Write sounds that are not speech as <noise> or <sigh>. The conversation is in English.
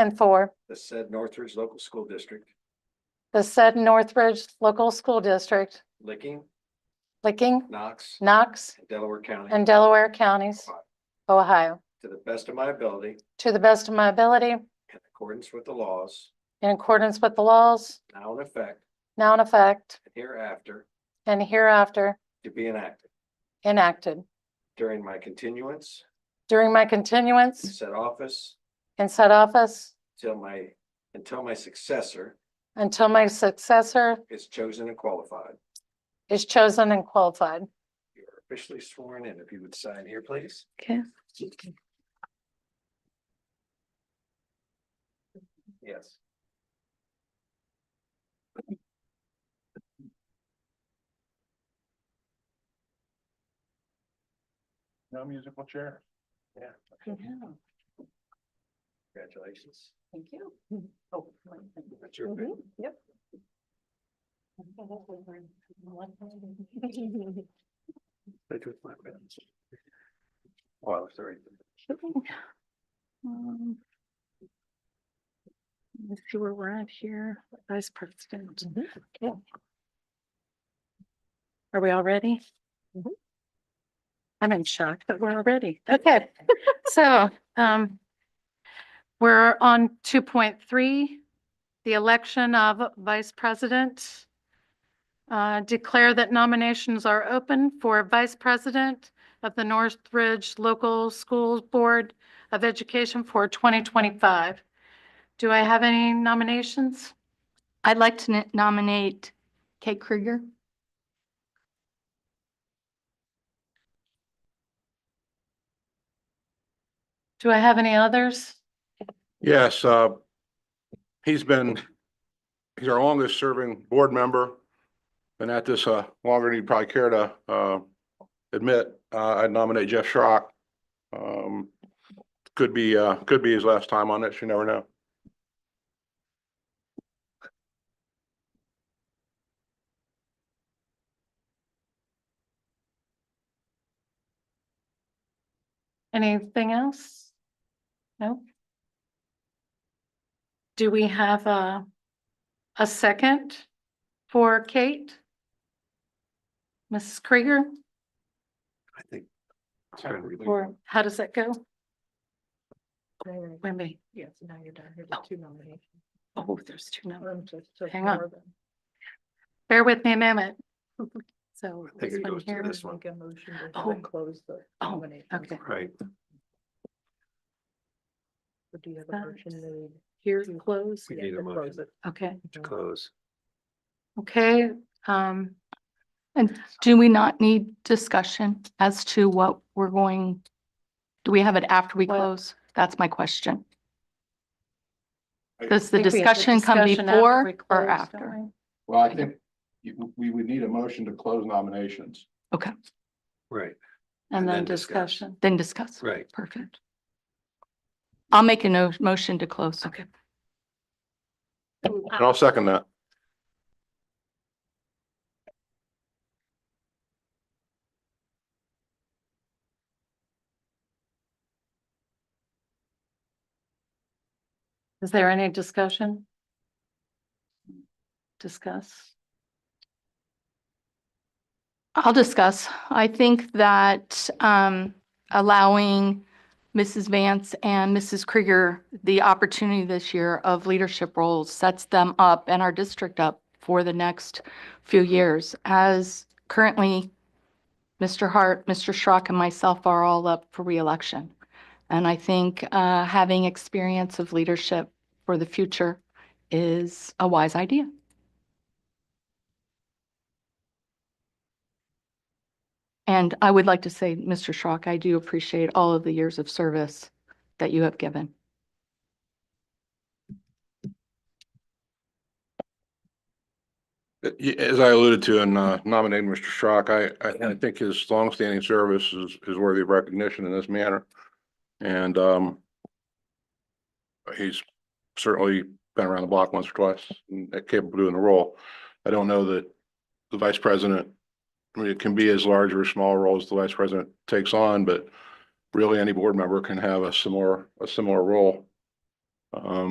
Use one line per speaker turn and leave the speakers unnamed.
and for
the said Northridge Local School District,
the said Northridge Local School District,
Licking,
Licking,
Knox,
Knox,
and Delaware County,
and Delaware counties, Ohio,
to the best of my ability,
to the best of my ability,
in accordance with the laws
in accordance with the laws
now in effect
now in effect
and hereafter
and hereafter
to be enacted
enacted
during my continuance
during my
in
continuance
said office
in said office
till my, until my successor
until my successor
is chosen and qualified.
is chosen and qualified.
You are officially sworn in. If you would sign here, please.
Okay.
Yes.
No musical chair.
Yeah. Congratulations. Oh,
Thank you. Mm-hmm.
That's your bid.
Yep.
Right with my friends. Well, sorry.
Um, Let's see where we're at here, vice president.
Mm-hmm.
Okay. Are we all ready? I'm in shock that we're already. Okay, <laughs> so, um, we're on two point three, the election of vice president. Uh, declare that nominations are open for vice president of the Northridge Local Schools Board of Education for 2025. Do I have any nominations?
I'd like to n- nominate Kate Krieger.
Do I have any others?
Yes, uh, he's been, he's our longest serving board member. Been at this, uh, longer than you'd probably care to, uh, admit. Uh, I'd nominate Jeff Schrock. Um, could be, uh, could be his last time on it. You never know.
Anything else? No? Do we have a, a second for Kate? Mrs. Krieger,
I think.
or how does that go? Wimby,
Yes, now you're done. Here
are
two nominations.
Oh, there's two numbers.
Um,
Hang on. bear with me a moment. So.
I think
this
it
one
goes to
here.
this one,
a motion
Oh. then
close the
Oh,
okay.
right?
Do you have
a motion
made? Here's close.
We need a motion
Okay,
to close.
okay, um,
And do we not need discussion as to what we're going? Do we have it after we
Well-
close? That's my question.
I
Does the
think we have the
discussion come
discussion after we close,
before or
don't
after?
we?
Well, I think you- we would need a motion to close nominations.
Okay,
Right,
And then discussion.
then discuss.
right.
Perfect. I'll make a no- motion to close.
Okay.
And I'll second that.
Is there any discussion? Discuss.
I'll discuss. I think that um, allowing Mrs. Vance and Mrs. Krieger the opportunity this year of leadership roles sets them up and our district up for the next few years. As currently, Mr. Hart, Mr. Schrock, and myself are all up for reelection. And I think uh, having experience of leadership for the future is a wise idea. And I would like to say, Mr. Schrock, I do appreciate all of the years of service that you have given.
Uh, y- As I alluded to in uh, nominating Mr. Schrock, I, I, I think his longstanding service is, is worthy of recognition in this manner. And, um, he's certainly been around the block once or twice and capable of doing the role. I don't know that the vice president, I mean, it can be as large or small a role as the vice president takes on, but really any board member can have a similar, a similar role. Um,